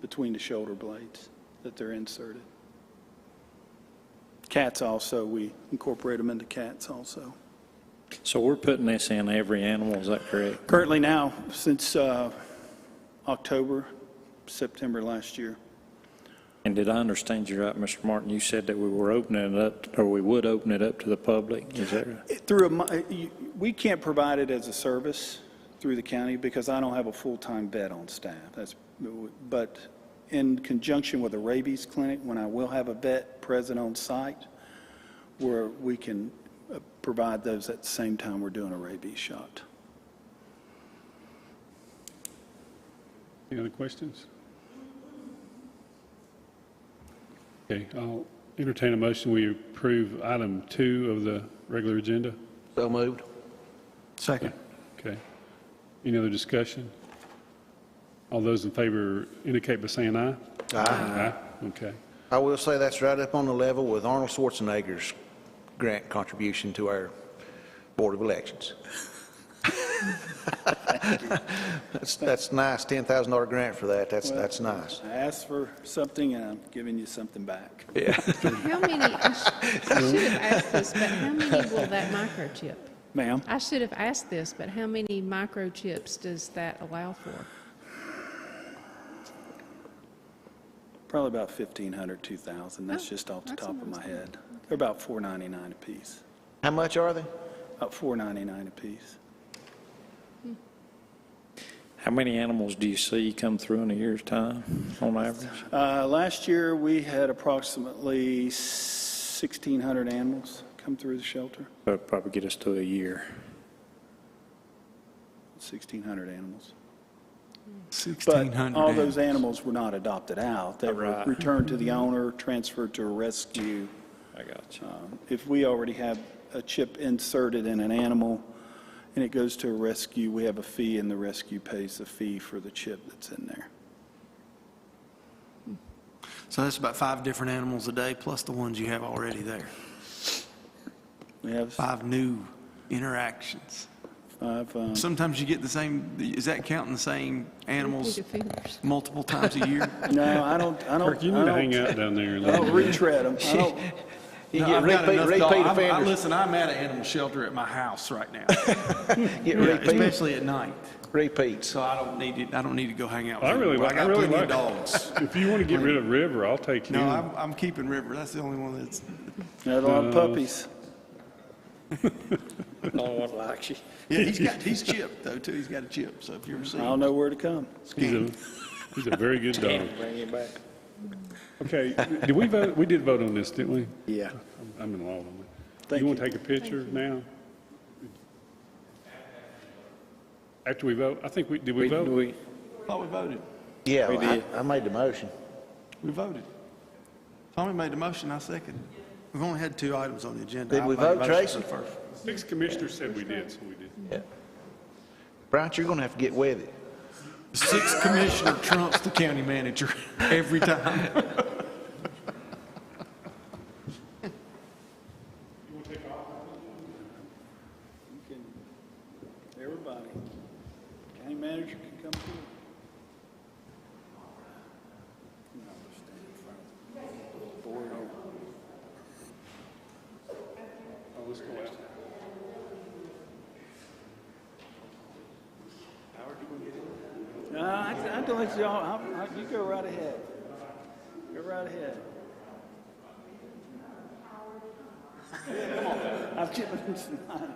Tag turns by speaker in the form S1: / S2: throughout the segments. S1: between the shoulder blades that they're inserted. Cats also, we incorporate them into cats also.
S2: So we're putting this in every animal, is that correct?
S1: Currently now, since uh, October, September last year,
S2: And did I understand you right, Mr. Martin? You said that we were opening it up, or we would open it up to the public, is that right?
S1: It- Through, a mi- you- we can't provide it as a service through the county because I don't have a full-time vet on staff. That's, but in conjunction with a rabies clinic, when I will have a vet present on site, where we can uh, provide those at the same time we're doing a rabies shot.
S3: Any other questions? Okay, I'll entertain a motion. We approve item two of the regular agenda.
S4: So moved.
S5: Second.
S3: Okay. Any other discussion? All those in favor indicate by saying aye. Aye. Okay.
S4: I will say that's right up on the level with Arnold Schwarzenegger's grant contribution to our Board of Elections. That's, that's nice, $10,000 grant for that, that's, that's nice.
S1: I asked for something and I'm giving you something back.
S6: How many, I sh- I should have asked this, but how many will that microchip?
S1: Ma'am?
S6: I should have asked this, but how many microchips does that allow for?
S1: Probably about 1,500, 2,000. That's
S6: Oh,
S1: just off the
S6: that's
S1: top of
S6: almost
S1: my
S6: it.
S1: head. They're about 4.99 apiece,
S4: How much are they?
S1: about 4.99 apiece.
S2: How many animals do you see come through in a year's time, on average?
S1: Uh, Last year, we had approximately 1,600 animals come through the shelter,
S2: That'd probably get us to a year.
S1: 1,600 animals. But
S5: 1,600.
S1: all those animals were not adopted out. They were
S2: Right.
S1: returned to the owner, transferred to a rescue.
S2: I got you.
S1: Um, If we already have a chip inserted in an animal and it goes to a rescue, we have a fee and the rescue pays the fee for the chip that's in there.
S5: So that's about five different animals a day, plus the ones you have already there.
S1: We have
S5: Five new interactions.
S1: five, um,
S5: Sometimes you get the same, is that counting the same animals
S6: Your fingers.
S5: multiple times a year?
S1: no, I don't, I don't,
S3: Kirk, you
S1: I
S3: need to hang
S1: don't,
S3: out down there. a
S1: I
S3: little
S1: don't
S3: bit.
S1: retread them. I don't,
S4: You
S5: No,
S4: get
S5: I've got
S4: repeat-
S5: enough
S4: repeat
S5: dog- I'm- I-
S4: offenders-
S5: Listen, I'm at an animal shelter at my house right now,
S4: Get repeat,
S5: especially at night.
S4: repeats.
S5: So I don't need to, I don't need to go hang out with
S3: I really
S5: anyone.
S3: like- I really
S5: got plenty of
S3: like-
S5: dogs.
S3: If you want to get rid of River, I'll take you.
S5: No, I'm, I'm keeping River. That's the only one that's,
S1: Not a lot of puppies.
S5: yeah, he's got, he's chipped though, too. He's got a chip, so if you ever see
S1: I
S5: him.
S1: don't know where to come.
S3: He's a, he's a very good dog. Okay, did we vote, we did vote on this, didn't we?
S4: Yeah.
S3: I'm in law on that.
S1: Thank
S3: You want to
S1: you.
S3: take a picture now? After we vote, I think we, did we
S2: We,
S3: vote?
S2: we,
S5: Oh, we voted.
S4: Yeah, I, I made the motion.
S5: We voted. Tommy made the motion, I second. We've only had two items on the agenda.
S4: Did
S5: I
S4: we
S5: made a
S4: vote,
S5: motion
S4: Tracy?
S5: for the first.
S3: Six commissioners said we did, so we did.
S4: Yeah. Bryant, you're going to have to get with it.
S5: Six commissioner trumps the county manager every time.
S1: Everybody, county manager can come through. Oh, Uh, I, I don't let y'all, I, I, you go right ahead. Go right ahead. I've given him some time.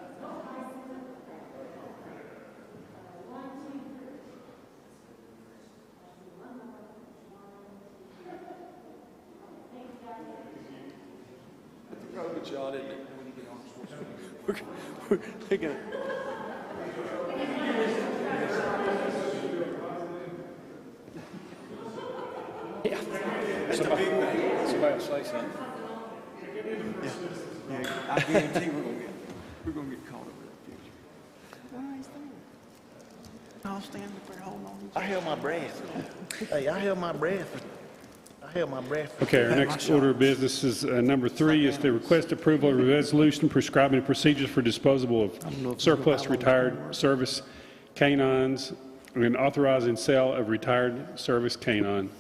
S5: I guarantee we're gonna get, we're gonna get caught up in the future. I'll stand up there holding on.
S4: I held my breath. Hey, I held my breath. I held my breath.
S3: Okay, our next order of business is, uh, number three is to request approval of a resolution prescribing procedures for disposal of surplus retired service canines and authorizing sale of retired service canine.